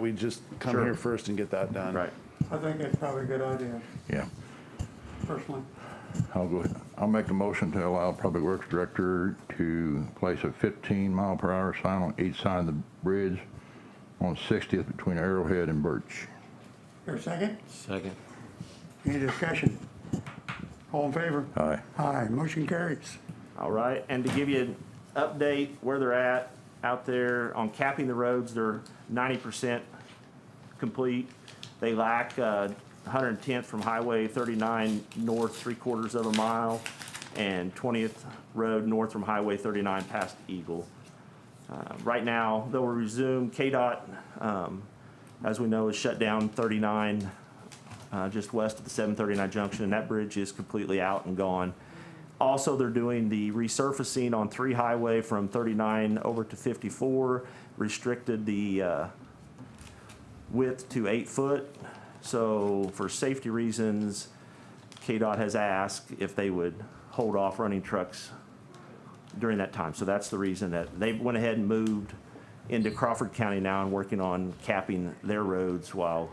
we just come Sure. here first and get that done? Right. I think that's probably a good idea, Yeah, personally. I'll go, I'll make a motion to allow Public Works Director to place a 15 mile per hour sign on each side of the bridge on 60th between Arrowhead and Birch. Here, second? Second. Any discussion? All in favor? Aye. Aye, motion carries. All right, and to give you an update where they're at out there on capping the roads, they're ninety percent complete. They lack one hundred and tenth from Highway thirty-nine north, three quarters of a mile, and twentieth road north from Highway thirty-nine past Eagle. Uh, Right now, they'll resume, KDOT, um, as we know, is shut down thirty-nine uh, just west of the 739 junction, and that bridge is completely out and gone. Also, they're doing the resurfacing on three highway from 39 over to 54, restricted the uh, width to eight foot. So for safety reasons, KDOT has asked if they would hold off running trucks during that time. So that's the reason that they went ahead and moved into Crawford County now and working on capping their roads while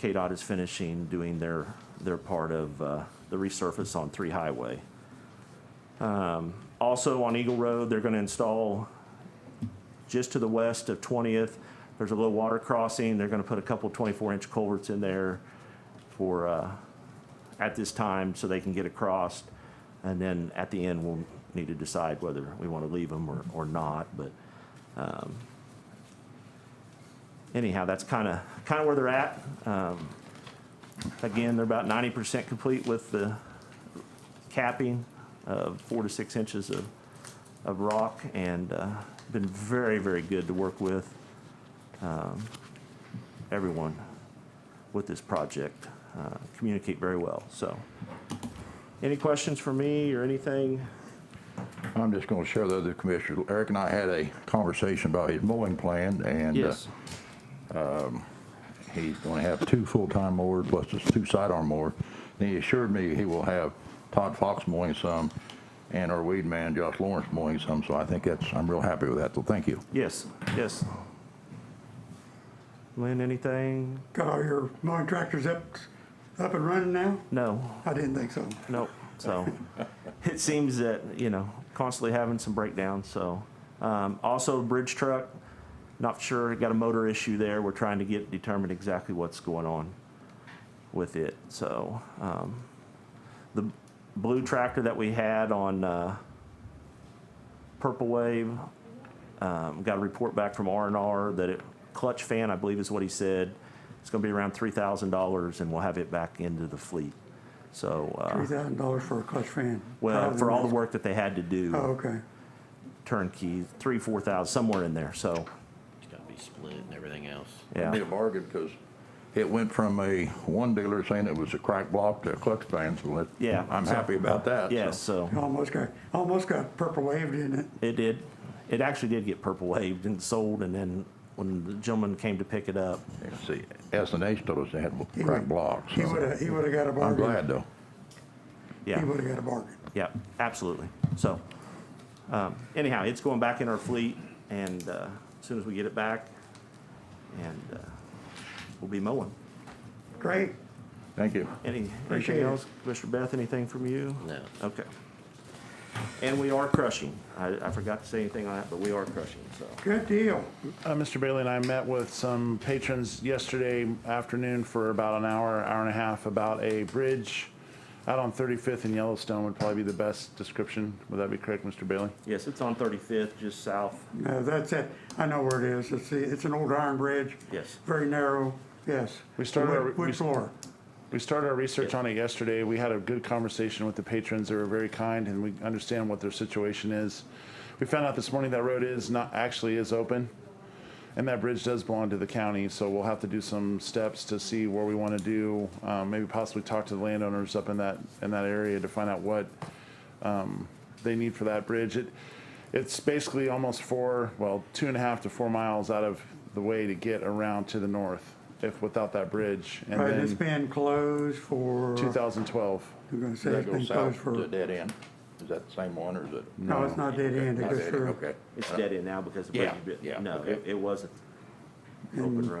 KDOT is finishing doing their, their part of uh, the resurface on Three Highway. Um, Also on Eagle Road, they're going to install just to the west of 20th. There's a little water crossing. They're going to put a couple 24-inch culverts in there for, uh, at this time, so they can get across. And then at the end, we'll need to decide whether we want to leave them or, or not, but um, anyhow, that's kind of, kind of where they're at. Um, Again, they're about 90% complete with the capping of four to six inches of, of rock and uh, been very, very good to work with um, everyone with this project. Uh, Communicate very well, so. Any questions for me or anything? I'm just gonna share the other commissioner, Eric and I had a conversation about his mowing plan and. uh, Yes, He's going to have two full-time mowers plus his two sidearm mower. And he assured me he will have Todd Fox mowing some and our weed man Josh Lawrence mowing some. So I think that's, I'm real happy with that. So thank you. yes, yes. Lynn, anything? Got all your mowing tractors up, up and running now? No. I didn't think so. Nope. So it seems that, you know, constantly having some breakdowns. So um, also bridge truck, not sure, got a motor issue there. We're trying to get determined exactly what's going on with it. So um, the blue tractor that we had on uh, Purple Wave um, got a report back from R and R that it clutch fan, I believe is what he said. It's going to be around three thousand dollars, and we'll have it back into the fleet. So uh, Three thousand dollars for a clutch fan. well, for all the work that they had to Oh, do, okay. turnkey, three, four thousand, somewhere in there, so, It's gotta be split and everything else. Be yeah. a bargain because it went from a one dealer saying it was a crack block to a clutch band. So that, Yeah, I'm so- happy about that. so. Yes, so, Almost got, almost got purple waved, didn't it? it did, it actually did get purple waved and sold, and then when the gentleman came to pick it up, See, S and H told us they had He crack would- blocks. He so would've, he would've got a I'm bargain. glad though. yeah, He would've got a bargain. yeah, absolutely, so. um, Anyhow, it's going back in our fleet, and uh, as soon as we get it back, and uh, we'll be mowing. Great. Thank you. Any, Appreciate anything it. else? Commissioner Beth, anything from you? No. Okay. And we are crushing. I, I forgot to say anything on that, but we are crushing, so. Good deal. Uh, Mr. Bailey and I met with some patrons yesterday afternoon for about an hour, hour and a half about a bridge out on 35th and Yellowstone would probably be the best description. Would that be correct, Mr. Bailey? Yes, it's on 35th, just south. No, Uh, that's it. I know where it is. It's, the- it's an old iron bridge. Yes. Very narrow, yes. We started our- Wood- we- Wood floor. We started our research on it yesterday. We had a good conversation with the patrons. They were very kind and we understand what their situation is. We found out this morning that road is not, actually is open. And that bridge does belong to the county, so we'll have to do some steps to see where we want to do, um, maybe possibly talk to the landowners up in that, in that area to find out what, um, they need for that bridge. It, it's basically almost four, well, two and a half to four miles out of the way to get around to the north if without that bridge. And Right, it's then been closed for, 2012. I'm gonna say Does it's that go been closed south for, to the dead end? Is that the same one or is it? no, it's not dead end. It Not goes dead end, through. Okay. It's dead end now because of where Uh, Yeah, you bit. yeah, No, okay. it, it wasn't. Mm. open road.